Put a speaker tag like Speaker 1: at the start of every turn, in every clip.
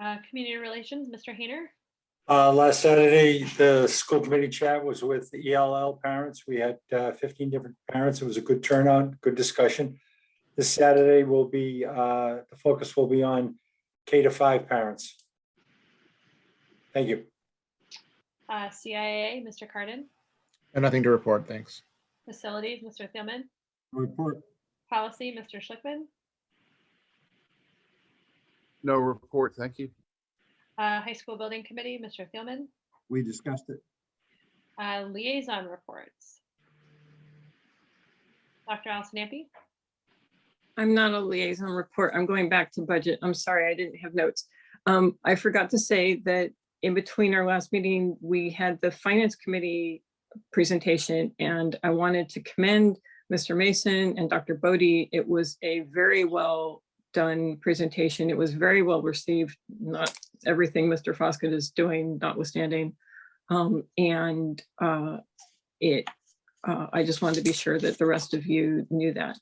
Speaker 1: Uh, Community Relations, Mr. Hayner.
Speaker 2: Uh, last Saturday, the school committee chat was with the ELL parents. We had uh, fifteen different parents. It was a good turnout, good discussion. This Saturday will be, uh, the focus will be on K to five parents. Thank you.
Speaker 1: Uh, CIAA, Mr. Carden.
Speaker 3: And nothing to report, thanks.
Speaker 1: Facilities, Mr. Thielman.
Speaker 2: Report.
Speaker 1: Policy, Mr. Schlickman.
Speaker 4: No report, thank you.
Speaker 1: Uh, High School Building Committee, Mr. Thielman.
Speaker 5: We discussed it.
Speaker 1: Uh, Liaison reports. Dr. Allison Ampe.
Speaker 6: I'm not a liaison report. I'm going back to budget. I'm sorry, I didn't have notes. Um, I forgot to say that in between our last meeting, we had the finance committee presentation and I wanted to commend Mr. Mason and Dr. Bodie. It was a very well done presentation. It was very well received, not everything Mr. Foskett is doing notwithstanding. Um, and, uh, it, uh, I just wanted to be sure that the rest of you knew that.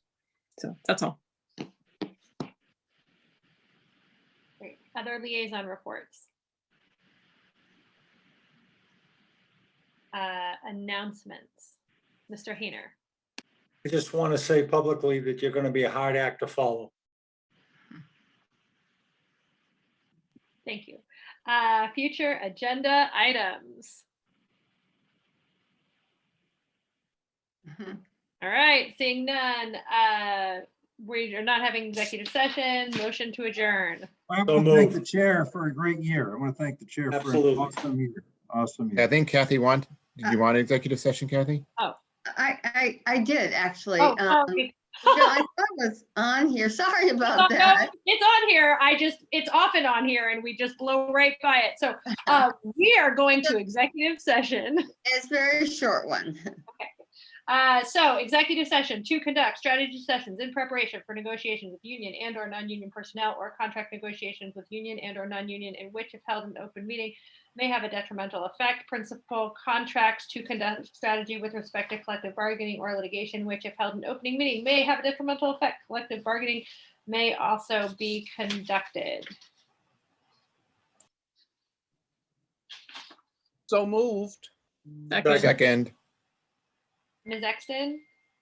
Speaker 6: So that's all.
Speaker 1: Great. Other liaison reports. Uh, Announcements, Mr. Hayner.
Speaker 2: I just want to say publicly that you're going to be a hard act to follow.
Speaker 1: Thank you. Uh, Future agenda items.
Speaker 7: Mhm.
Speaker 1: All right, seeing none, uh, we are not having executive session, motion to adjourn.
Speaker 5: I
Speaker 2: So
Speaker 5: want to thank the
Speaker 2: moved.
Speaker 5: chair for a great year. I want to thank the chair for
Speaker 2: Absolutely.
Speaker 5: an awesome year. Awesome
Speaker 3: I
Speaker 5: year.
Speaker 3: think Kathy want, did you want an executive session, Kathy?
Speaker 7: I, I, I did actually.
Speaker 1: Oh,
Speaker 7: um,
Speaker 1: sorry.
Speaker 7: no, I thought it was on here. Sorry
Speaker 1: No,
Speaker 7: about
Speaker 1: no,
Speaker 7: that.
Speaker 1: It's on here. I just, it's often on here and we just blow right by it. So, uh, we are going to executive session.
Speaker 7: It's a very short one.
Speaker 1: Uh, so executive session to conduct strategy sessions in preparation for negotiations with union and or non-union personnel or contract negotiations with union and or non-union in which if held in open meeting may have a detrimental effect. Principal contracts to conduct strategy with respect to collective bargaining or litigation, which if held in opening meeting may have a detrimental effect. Collective bargaining may also be conducted.
Speaker 8: So moved.
Speaker 6: Second.
Speaker 3: Second,
Speaker 1: Ms. Exton,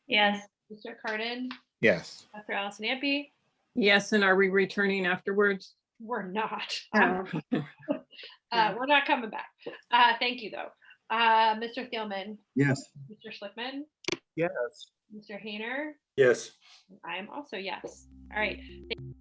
Speaker 9: Yes.
Speaker 1: Mr. Carden,
Speaker 3: yes.
Speaker 1: Dr. Allison Ampe,
Speaker 6: Yes, and are we returning afterwards?
Speaker 1: we're not. I'm
Speaker 7: Um,
Speaker 1: Uh, we're not coming back. Uh, thank you though. Uh, Mr. Thielman,
Speaker 5: Yes.
Speaker 1: Mr. Schlickman,
Speaker 8: Yes.
Speaker 1: Mr. Hayner,
Speaker 2: Yes.
Speaker 1: I'm also yes. All right.